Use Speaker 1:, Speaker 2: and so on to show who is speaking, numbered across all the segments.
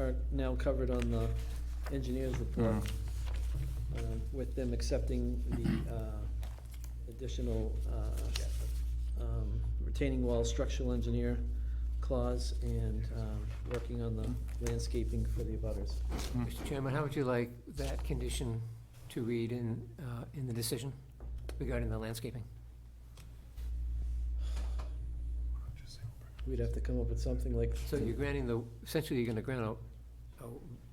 Speaker 1: are now covered on the engineer's report,
Speaker 2: Mm.
Speaker 1: um, with them accepting the uh, additional uh, um, retaining wall structural engineer clause and um, working on the landscaping for the abutters.
Speaker 3: Mr. Chairman, how would you like that condition to read in, uh, in the decision regarding the landscaping?
Speaker 1: We'd have to come up with something like,
Speaker 3: So you're granting the, essentially you're gonna grant a, a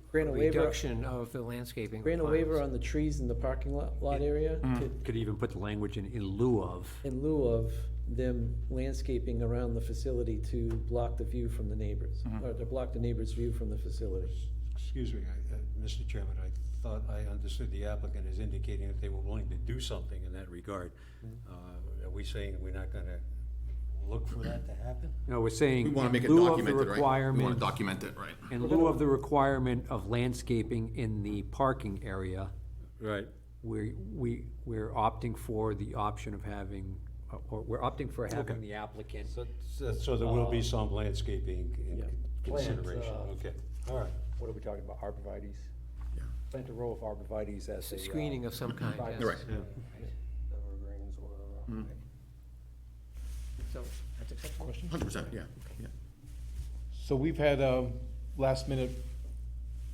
Speaker 1: grant a waiver,
Speaker 3: reduction of the landscaping.
Speaker 1: grant a waiver on
Speaker 3: requirements.
Speaker 1: the trees in the parking lot, lot area to-
Speaker 4: Could even put the language in, in lieu of,
Speaker 1: in lieu of them landscaping around the facility to block the view from the neighbors, or to block the neighbor's view from the facility.
Speaker 5: Excuse me, I- uh, Mr. Chairman, I thought I understood the applicant as indicating that they were willing to do something in that regard.
Speaker 6: Mm-hmm.
Speaker 5: Uh, Are we saying we're not going to look for that to happen?
Speaker 4: no, we're saying.
Speaker 2: We wanna
Speaker 4: in
Speaker 2: make it
Speaker 4: lieu of the
Speaker 2: documented, right? We wanna
Speaker 4: requirement-
Speaker 2: document it, right?
Speaker 4: In lieu of the requirement of landscaping in the parking area,
Speaker 5: Right.
Speaker 4: we're, we, we're opting for the option of having, uh, or we're opting for having the applicant.
Speaker 5: So there will
Speaker 1: Uh,
Speaker 5: be some landscaping in consideration,
Speaker 6: Plants, uh,
Speaker 5: okay, all right.
Speaker 6: What are we talking about, arborvitaes? Plant a row of arborvitaes as a. uh,
Speaker 3: Screening of some kind, yes.
Speaker 2: Right.
Speaker 5: Yeah.
Speaker 6: Evergreens or.
Speaker 3: So, that's acceptable?
Speaker 2: Hundred percent, yeah, yeah.
Speaker 7: So we've had um, last-minute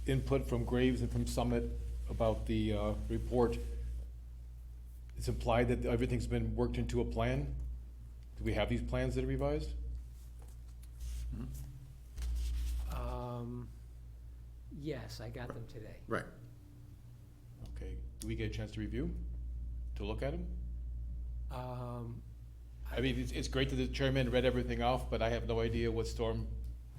Speaker 7: input from Graves and from Summit about the uh, report. It's implied that everything's been worked into a plan? Do we have these plans that are revised?
Speaker 3: Um, yes, I got them today.
Speaker 2: Right.
Speaker 7: Okay, do we get a chance to review, to look at them?
Speaker 3: Um,
Speaker 7: I mean, it's, it's great that the chairman read everything off, but I have no idea what storm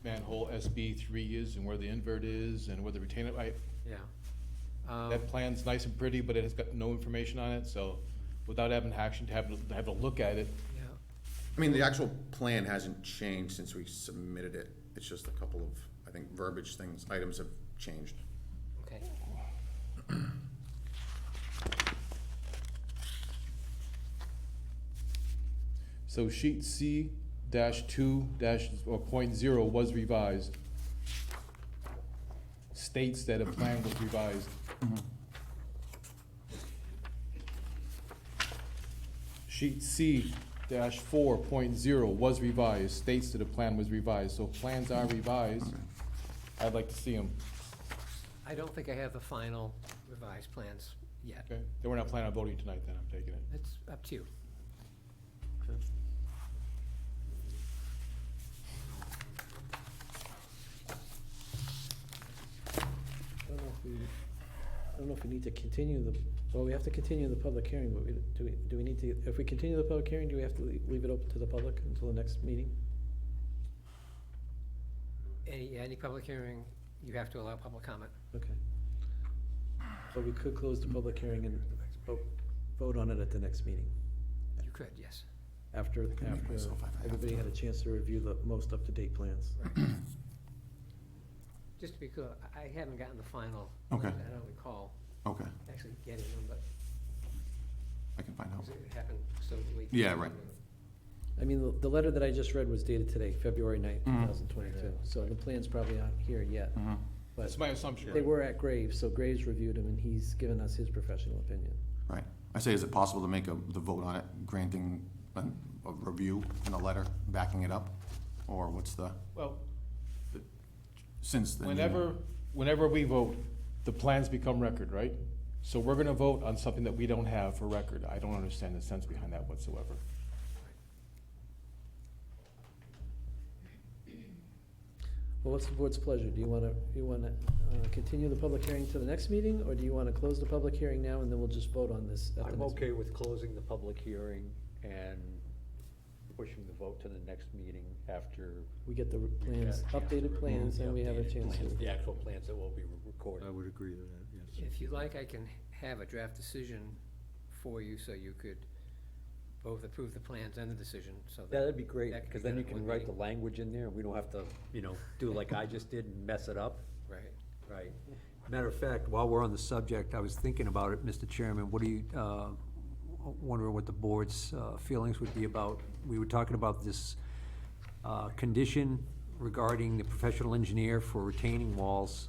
Speaker 7: manhole SB three is and where the invert is and where the retainer, I,
Speaker 3: yeah. Um,
Speaker 7: That plan's nice and pretty, but it has got no information on it, so without having action, to have, to have a look at it,
Speaker 3: yeah.
Speaker 2: I mean, the actual plan hasn't changed since we submitted it. It's just a couple of, I think, verbiage things, items have changed.
Speaker 3: Okay.
Speaker 7: So sheet C dash two dash, or point zero was revised. States that a plan was revised. Sheet C dash four point zero was revised, states that a plan was revised, so plans are revised. I'd like to see them,
Speaker 3: I don't think I have the final revised plans yet.
Speaker 7: okay? Then we're not planning on voting tonight, then, I'm taking it.
Speaker 3: It's up to you.
Speaker 1: I don't know if we, I don't know if we need to continue the, well, we have to continue the public hearing, but we, do we, do we need to, if we continue the public hearing, do we have to lea- leave it open to the public until the next meeting?
Speaker 3: Any, any public hearing, you have to allow public comment.
Speaker 1: Okay. So we could close the public hearing and vote, vote on it at the next meeting,
Speaker 3: You could, yes.
Speaker 1: after, after everybody had a chance to review the most up-to-date plans.
Speaker 3: Just to be clear, I- I haven't gotten the final.
Speaker 2: Okay.
Speaker 3: I don't recall
Speaker 2: Okay,
Speaker 3: actually getting them, but
Speaker 2: I can find out.
Speaker 3: it happened so late.
Speaker 2: Yeah, right.
Speaker 1: I mean, the, the letter that I just read was dated today, February ninth, two thousand twenty-two, so the plans probably aren't here yet. But
Speaker 7: That's my assumption.
Speaker 1: they were at Graves, so Graves reviewed them, and he's given us his professional opinion.
Speaker 8: Right. I say, is it possible to make a, the vote on it, granting a, a review and a letter backing it up? Or what's the,
Speaker 7: Well,
Speaker 8: since the.
Speaker 7: Whenever, whenever we vote, the plans become record, right? So we're gonna vote on something that we don't have for record. I don't understand the sense behind that whatsoever.
Speaker 1: Well, what's the board's pleasure? Do you wanna, you wanna, uh, continue the public hearing to the next meeting, or do you wanna close the public hearing now, and then we'll just vote on this at the
Speaker 6: I'm
Speaker 1: next?
Speaker 6: okay with closing the public hearing and pushing the vote to the next meeting after.
Speaker 1: We get the plans,
Speaker 6: We've got a chance to
Speaker 1: updated plans,
Speaker 6: review
Speaker 1: and
Speaker 6: the
Speaker 1: we have a
Speaker 6: updated
Speaker 1: chance
Speaker 6: plans, The
Speaker 1: to.
Speaker 6: actual plans that will be recorded.
Speaker 5: I would agree with that, yes.
Speaker 3: If you like, I can have a draft decision for you so you could both approve the plans and the decision, so that.
Speaker 6: That'd be great,
Speaker 3: That could
Speaker 6: because
Speaker 3: be
Speaker 6: then
Speaker 3: done
Speaker 6: you
Speaker 3: at one
Speaker 6: can write the
Speaker 3: meeting.
Speaker 6: language in there, and we don't have to, you know, do like I just did and mess it up.
Speaker 3: Right.
Speaker 6: Right.
Speaker 4: Matter of fact, while we're on the subject, I was thinking about it, Mr. Chairman, what do you, uh, wondering what the board's uh, feelings would be about, we were talking about this uh, condition regarding the professional engineer for retaining walls